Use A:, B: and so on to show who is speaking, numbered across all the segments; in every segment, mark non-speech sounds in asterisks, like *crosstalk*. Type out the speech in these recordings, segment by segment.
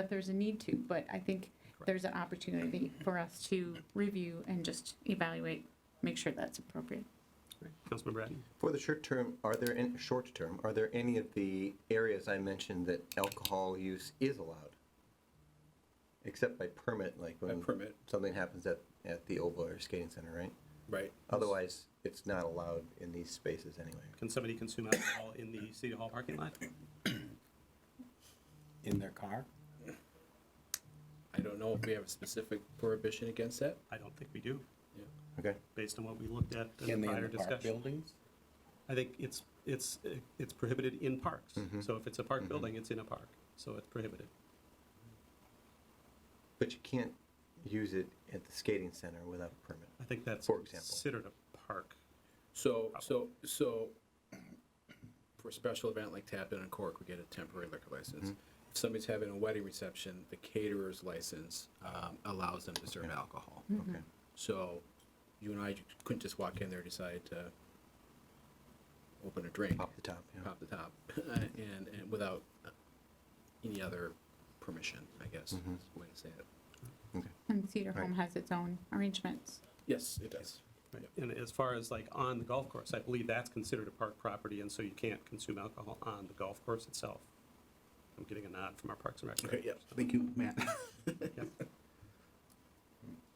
A: if there's a need to, but I think there's an opportunity for us to review and just evaluate, make sure that's appropriate.
B: Right. Councilmember Bratton?
C: For the short term, are there, any- short term, are there any of the areas I mentioned that alcohol use is allowed? Except by permit, like
D: By
C: when
D: permit,
C: something happens at, at the Oval or Skating Center, right?
D: right.
C: Otherwise, it's not allowed in these spaces anyway.
B: Can somebody consume alcohol in the City Hall parking lot?
E: in their car?
D: I don't know if we have a specific prohibition against that.
B: I don't think we do,
C: Okay?
B: based on what we looked at in
E: Can
B: the
E: they
B: prior
E: in the park
B: discussion.
E: buildings?
B: I think it's, it's, uh, it's prohibited in parks. So if it's a park building, it's in a park, so it's prohibited.
C: But you can't use it at the skating center without a permit.
B: I think that's
C: For example.
B: considered a park.
D: So, so, so for a special event like Tap In and Cork, we get a temporary liquor license. If somebody's having a wedding reception, the caterer's license um, allows them to serve alcohol.
C: Okay.
D: So you and I couldn't just walk in there and decide to open a drink,
C: Off the top, yeah.
D: pop the top, *laughs* and, and without any other permission, I guess, is the way to say it.
A: And Cedar Home has its own arrangements.
D: Yes, it does.
B: Right. And as far as like on the golf course, I believe that's considered a park property, and so you can't consume alcohol on the golf course itself. I'm getting a nod from our Parks and Rec.
D: Okay, yeah.
E: Thank you, Matt.
B: Yeah.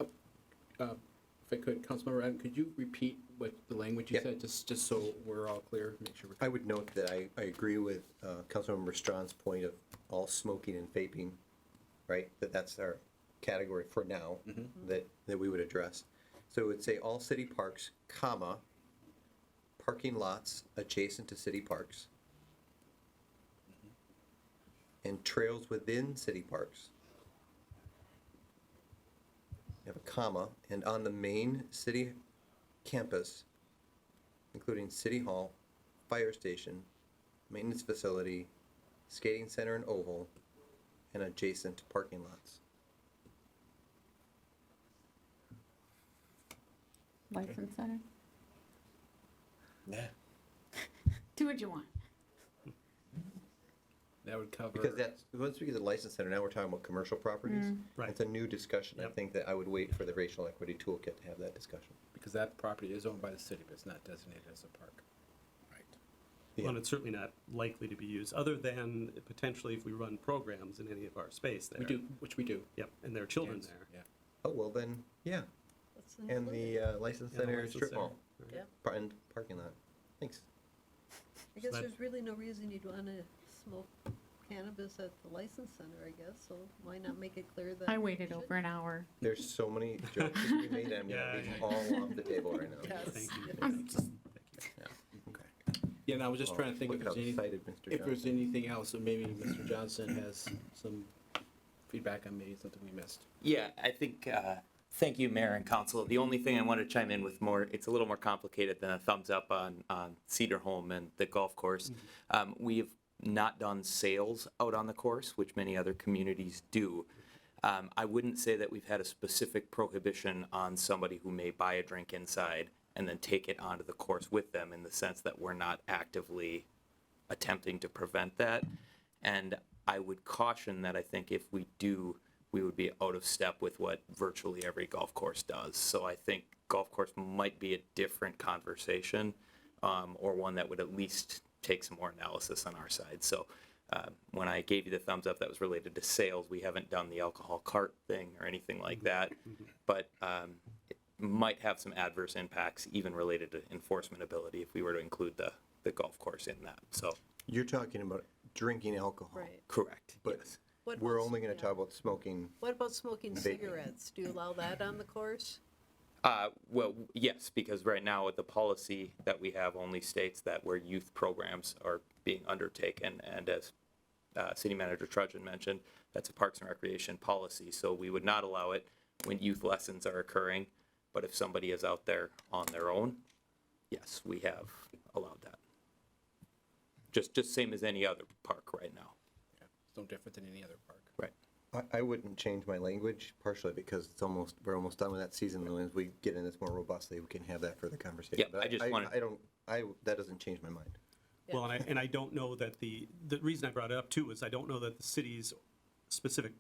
D: If I could, Councilmember Adam, could you repeat what the language you
C: Yeah.
D: said, just, just so we're all clear, make sure
C: I
D: we're.
C: would note that I, I agree with uh, Councilmember Strawn's point of all smoking and vaping, right? That that's our category for now that, that we would address. So it would say all city parks, comma, parking lots adjacent to city parks, and trails within city parks. You have a comma, and on the main city campus, including City Hall, Fire Station, Maintenance Facility, Skating Center and Oval, and adjacent parking lots.
A: License center,
E: Yeah.
A: do what you want.
D: That would cover.
C: Because that's, once we get the license center, now we're talking about commercial properties.
F: Mm.
B: Right.
C: It's a new discussion. I
B: Yep.
C: think that I would wait for the racial equity toolkit to have that discussion.
D: Because that property is owned by the city, but it's not designated as a park.
C: Yeah.
B: Well, and it's certainly not likely to be used, other than potentially if we run programs in any of our space there.
D: We do, which we do.
B: Yep, and there are children
D: Yes,
B: there.
D: Yeah.
C: Oh, well then, yeah.
F: Let's
C: And
F: include
C: the
F: it.
C: uh,
B: And
C: license
B: the
C: center
B: license
C: strip
B: center.
C: mall,
B: Right.
F: Mm-hmm. Yep.
C: par- and parking lot. Thanks.
F: I guess
B: that-
F: there's really no reason you'd want to smoke cannabis at the license center, I guess, so why not make it clear that?
A: I
F: you
A: waited
F: should-
A: over an hour.
C: There's
B: *laughs*
C: so many jokes to be made. I'm
B: Yeah,
C: gonna leave
B: yeah.
C: all off the table right now.
F: *laughs* Yes.
B: Thank you.
A: I'm just-
C: Okay.
D: Yeah, and I was just trying to think
C: Oh, Look
D: if there's
C: how
D: anything,
C: excited Mr.
D: if there's
C: Johnson
D: anything else, and maybe Mr. Johnson has some feedback on maybe something we missed.
G: Yeah, I think, uh, thank you, Mayor and Council. The only thing I want to chime in with more, it's a little more complicated than a thumbs up on, on Cedar Home and the golf course. Um, We have not done sales out on the course, which many other communities do. Um, I wouldn't say that we've had a specific prohibition on somebody who may buy a drink inside and then take it onto the course with them in the sense that we're not actively attempting to prevent that. And I would caution that I think if we do, we would be out of step with what virtually every golf course does. So I think golf course might be a different conversation um, or one that would at least take some more analysis on our side. So uh, when I gave you the thumbs up, that was related to sales. We haven't done the alcohol cart thing or anything like that, but um, it might have some adverse impacts, even related to enforcement ability, if we were to include the, the golf course in that. So
C: You're talking about drinking alcohol.
F: Right.
G: Correct.
C: But
F: What
C: we're
F: about-
C: only gonna
F: yeah.
C: talk about smoking
F: What about smoking cigarettes? Do you allow that on the course?
G: Uh, well, yes, because right now with the policy that we have only states that where youth programs are being undertaken, and as uh, City Manager Trudgeon mentioned, that's a Parks and Recreation policy, so we would not allow it when youth lessons are occurring. But if somebody is out there on their own, yes, we have allowed that. Just, just same as any other park right now.
D: Yeah, It's no different than any other park.
G: Right.
C: I, I wouldn't change my language partially because it's almost, we're almost done with that season. And as we get in this more robustly, we can have that further conversation.
G: Yeah,
C: But
G: I just wanted-
C: I don't, I, that doesn't change my mind.
B: Well, and I, and I don't know that the, the reason I brought it up too is I don't know that the city's specific